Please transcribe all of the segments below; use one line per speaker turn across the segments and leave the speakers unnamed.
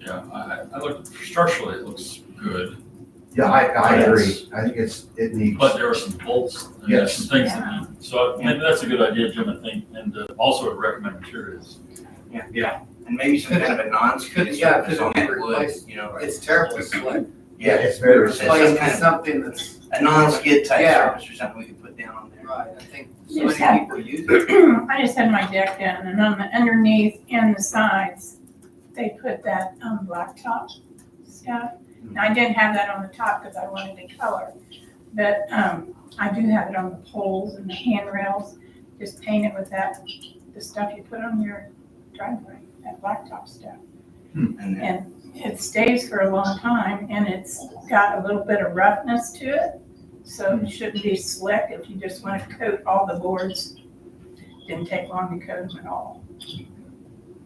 Yeah, I, I- I looked, structurally, it looks good,
Yeah, I, I
Yes.
agree. I think it's, it needs,
but there are some bolts, and there's some things that need, so maybe that's a good idea, Jim, I think, and uh, also I'd recommend materials.
And maybe some kind of a non-skid
Yeah,
surface on that wood, you know,
It's terrible, it's like,
yeah,
yeah,
it's very,
It's like-
playing with something that's,
a non-skid type
Yeah.
surface or something we could put down on there.
right, I think
So
Yes.
many people use it.
I just had my deck in and on the underneath and the sides, they put that, um, blacktop stuff. And I didn't have that on the top because I wanted to color, but, um, I do have it on the poles and the handrails. Just paint it with that, the stuff you put on your driveway, that blacktop stuff.
And then-
And it stays for a long time and it's got a little bit of roughness to it. So it shouldn't be slick if you just want to coat all the boards. Didn't take long to coat them at all.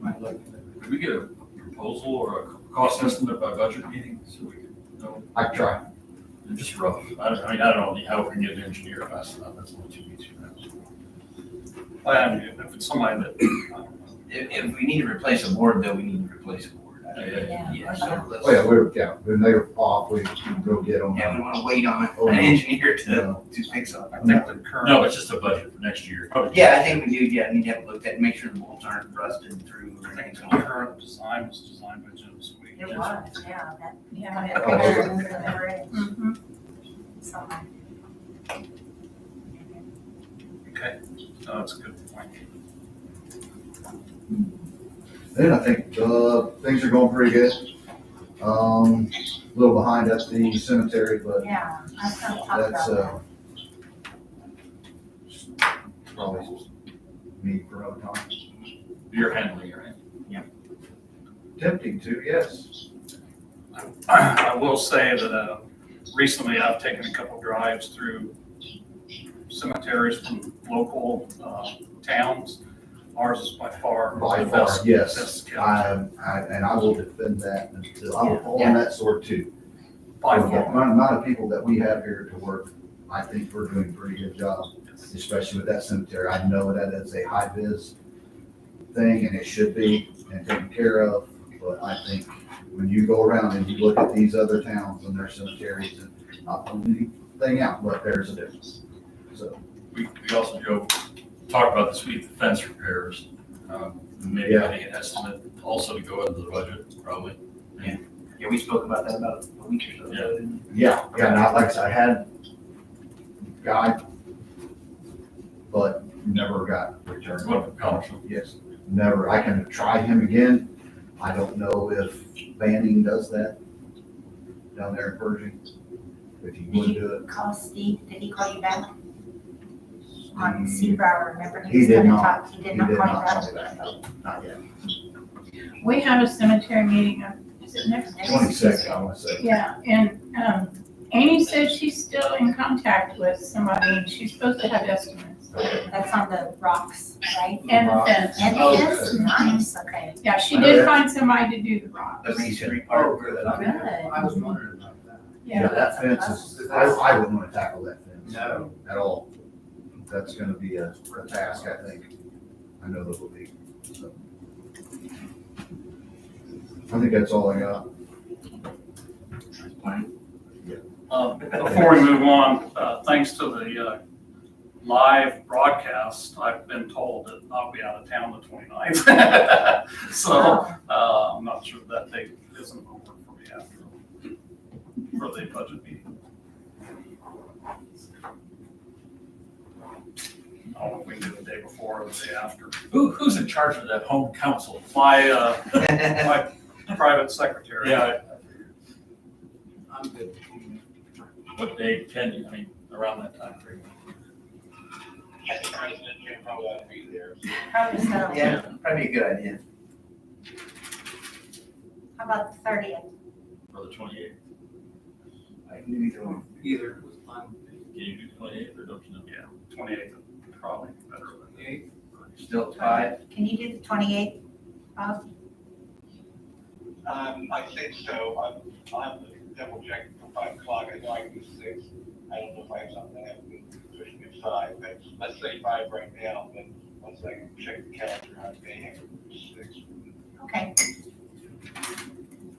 might look-
Could we get a proposal or a cost estimate by budget meeting, so we could know,
I try.
It's just rough, I, don't- I mean, I don't know how we can get an engineer fast enough, that's a little too easy for us.
I mean, if it's somebody that, uh, I don't know.
If, if we need to replace a board, though, we need to replace a board. I-
Yeah.
Yeah, so let's,
Oh, yeah, we're, yeah, when they're off, we go get them.
yeah, we wanna wait on
Oh,
an
no.
engineer to,
Yeah.
to fix up.
I think the current.
No, it's just a budget for next year.
Yeah, I think we do, yeah, need to have it looked at, make sure the bolts aren't rusted through or
I think
anything's
the
going on.
current design was designed by Jim Sweet.
It was, yeah, that,
Yeah.
that
Oh,
picture
okay.
was in the bridge,
Mhm.
so.
Okay, no, that's a good point.
Then I think, uh, things are going pretty good. Um, a little behind at the cemetery, but
Yeah, I was gonna talk
that's,
about
uh, probably me for another time.
You're handling your hand.
Tempting to, yes.
I will say that uh, recently I've taken a couple drives through cemeteries from local uh, towns. Ours is by far
By
the
far,
best.
yes.
best kept.
I, I, and I will defend that until, I'm on that sword too.
By
With the
far.
amount of people that we have here to work, I think we're doing a pretty good job, especially with that cemetery. I know that it's a high vis thing and it should be and taken care of, but I think when you go around and you look at these other towns and their cemeteries and not putting anything out, but there's a difference. So,
We, we also, Joe, talked about this week, the fence repairs. Um, Maybe
Yeah.
getting an estimate also to go into the budget, probably.
Yeah, we spoke about that about a week or so ago. didn't we?
yeah, yeah, not like I said, I had guy, but never got returned.
What, the college?
Yes, never. I can try him again. I don't know if Banning does that down there in Pershing. If he would do
that. Call Steve, did he call you back on
it.
Seabrow, remember?
He
was
did
gonna
not.
talk, He
He
did
did
not call you
not
back?
tell me that, no, not yet.
We have a cemetery meeting, uh, is it next? week?
Twenty-second, I wanna say.
Yeah, and, um, Amy said she's still in contact with somebody and she's supposed to have estimates
That's on the rocks, right?
and the fence.
And
Oh,
it is
okay.
nice, okay,
Yeah, she did find somebody to do the rocks.
The masonry part where that
good.
I'm.
I was wondering about that.
Yeah, that fence is, I, I wouldn't wanna tackle that fence.
No.
At all. That's gonna be a, a task, I think. I know that will be, so. I think that's all I got.
Uh, Before we move on, uh, thanks to the uh, live broadcast, I've been told that I'll be out of town the 29th. So
Wow.
uh, I'm not sure that date isn't over for me after, for the budget meeting. I don't know if Oh, we can do the day before or the day after.
Who, who's in charge of that home council?
My, uh, my private secretary.
Yeah,
I'm good.
what day, can you, I mean, around that time frame?
Probably so.
Yeah, probably a good idea.
How about the thirtieth?
Or the twenty-eighth?
I can do either one.
Either was fine.
Can you do twenty-eighth or don't you know?
Yeah, 28th, would probably be better than the 8th.
Still tied.
Can you do the twenty-eighth, Uh, Bob?
Um, I think so. I'm, I'm double checking for five o'clock. I know I can do six. I don't know if I have something I have to push me aside, but let's say five right now, but once I check the calendar, I may have six.
Okay.